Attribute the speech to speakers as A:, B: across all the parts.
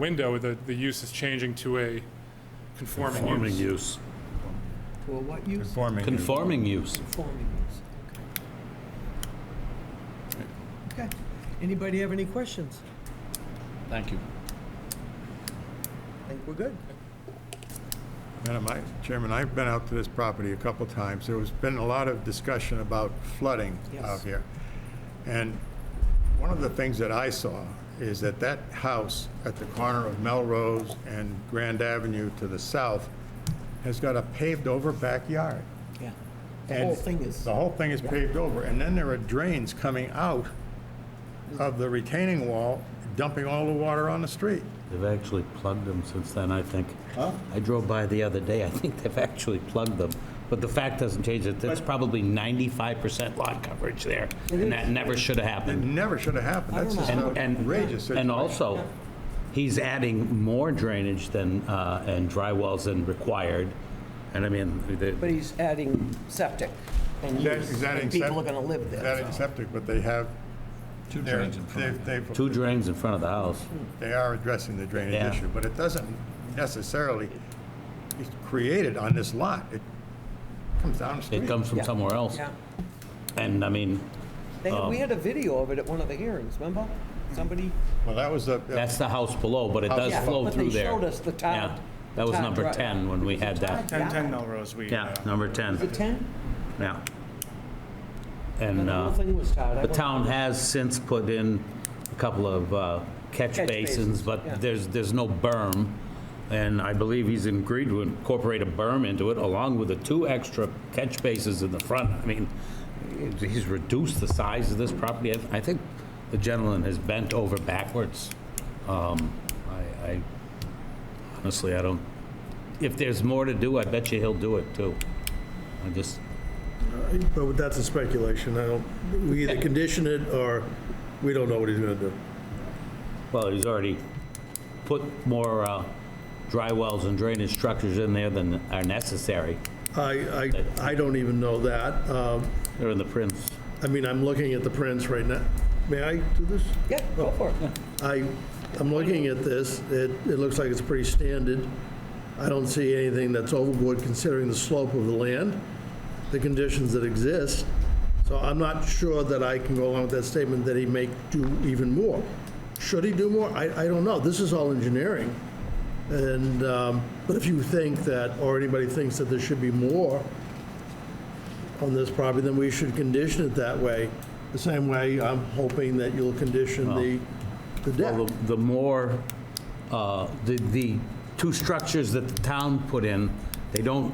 A: window, the, the use is changing to a conforming
B: Conforming
A: use.
B: use.
C: To a what use?
D: Conforming.
B: Conforming use.
C: Conforming use, okay. Okay, anybody have any questions?
B: Thank you.
C: I think we're good.
D: Madam I- Chairman, I've been out to this property a couple times. There has been a lot of discussion about flooding
C: Yes.
D: out here. And one of the things that I saw is that that house at the corner of Melrose and Grand Avenue to the south has got a paved-over backyard.
C: Yeah. The
D: And
C: whole thing is,
D: The whole thing is paved over, and then there are drains coming out of the retaining wall, dumping all the water on the street.
B: They've actually plugged them since then, I think. I drove by the other day, I think they've actually plugged them. But the fact doesn't change it, that's probably 95% lot coverage there, and that never should have
D: It
B: happened.
D: never should have happened. That's just
B: And,
D: an
B: and,
D: outrageous situation.
B: and also, he's adding more drainage than, uh, and dry wells than required. And I mean, the-
C: but he's adding septic and
D: That-
C: use,
D: is that
C: and
D: in
C: people are
D: sep-
C: gonna live
D: Is that
C: there,
D: in
C: so.
D: septic, but they have,
E: Two
D: they're,
E: drains in front
D: they've,
E: of it.
D: they've-
B: two drains in front of the house.
D: they are addressing the
B: Yeah.
D: drainage issue, but it doesn't necessarily, it's created on this lot. It comes down the
B: It
D: street.
B: comes from
C: Yeah.
B: somewhere else.
C: Yeah.
B: And I mean,
C: They had- We had a video of it at one of the hearings, remember? Somebody,
D: Well, that was a,
B: that's the house below, but it does
C: Oh, Yeah,
B: flow
C: but
B: through
C: they
B: there.
C: showed us the tile-
B: Yeah.
C: the
B: That was
C: tile
B: number
C: drive.
B: 10 when we had that.
E: 10, 10 Melrose, we.
B: Yeah, number 10.
C: the 10,
B: Yeah.
C: and
B: And
C: the whole
B: uh,
C: thing was tied.
B: the
C: I went-
B: town has since put in a couple of uh, catch
C: Catch basins,
B: basins,
C: yeah.
B: but there's, there's no berm. And I believe he's agreed to incorporate a berm into it along with the two extra catch bases in the front. I mean, he's reduced the size of this property. I- I think the gentleman has bent over backwards. Um, I, I honestly, I don't, if there's more to do, I bet you he'll do it too. I just,
F: But that's a speculation. I don't, we either condition it or we don't know what he's gonna do.
B: Well, he's already put more uh, dry wells and drainage structures in there than are necessary.
F: I, I, I don't even know that. Um,
B: They're in the prints.
F: I mean, I'm looking at the prints right now. May I do this?
C: Yeah, go for it.
F: I, I'm looking at this, it, it looks like it's pretty standard. I don't see anything that's overboard considering the slope of the land, the conditions that exist. So I'm not sure that I can go along with that statement that he may do even more. Should he do more? I, I don't know. This is all engineering. And, um, but if you think that, or anybody thinks that there should be more, on this property, then we should condition it that way. The same way I'm hoping that you'll condition the, the
B: Well,
F: deck.
B: the- the more, uh, the, the two structures that the town put in, they don't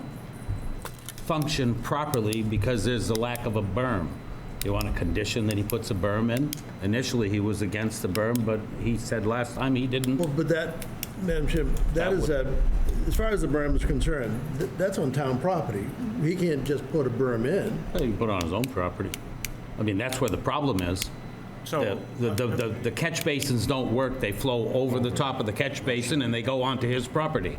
B: function properly because there's a lack of a berm. You want to condition that he puts a berm in? Initially, he was against the berm, but he said last time he didn't.
F: Well, but that, Madam Chair, that is a, as far as the berm is concerned, th- that's on town property. He can't just put a berm in.
B: He can put it on his own property. I mean, that's where the problem is. The,
E: So,
B: the- the, the catch basins don't work, they flow over the top of the catch basin and they go onto his property.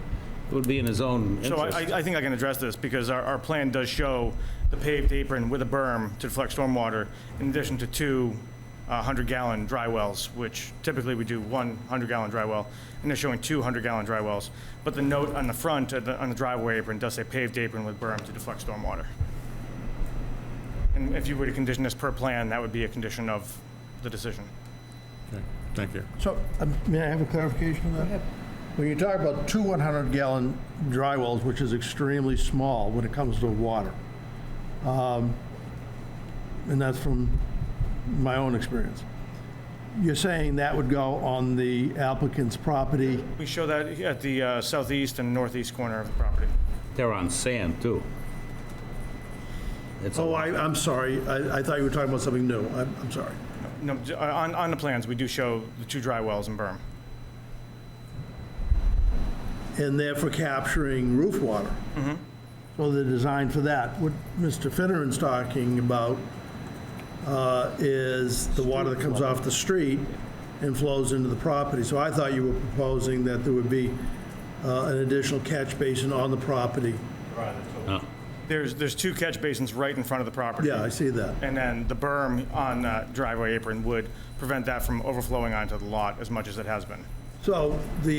B: It would be in his own
E: so I,
B: interest.
E: I- I think I can address this, because our, our plan does show the paved apron with a berm to deflect stormwater, in addition to two 100-gallon dry wells, which typically we do one 100-gallon dry well, and they're showing two 100-gallon dry wells. But the note on the front, of the- on the driveway apron, does say paved apron with berm to deflect stormwater. And if you were to condition this per plan, that would be a condition of the decision.
D: thank you.
F: So, um, may I have a clarification on that?
C: ahead.
F: When you talk about two 100-gallon dry wells, which is extremely small when it comes to water, um, and that's from my own experience, you're saying that would go on the applicant's property?
E: We show that at the uh, southeast and northeast corner of the property.
B: They're on sand, too. It's a
F: Oh,
B: lot.
F: I, I'm sorry, I, I thought you were talking about something new, I'm, I'm sorry.
E: No, j- on, on the plans, we do show the two dry wells and berm.
F: And therefore capturing roof water. So they're designed for that. What Mr. Finneran's talking about uh, is the water that comes off the street and flows into the property. So I thought you were proposing that there would be uh, an additional catch basin on the property.
E: There's, there's two catch basins right in front of the property.
F: Yeah, I see that.
E: And then the berm on uh, that driveway apron would prevent that from overflowing onto the lot as much as it has been.
F: So the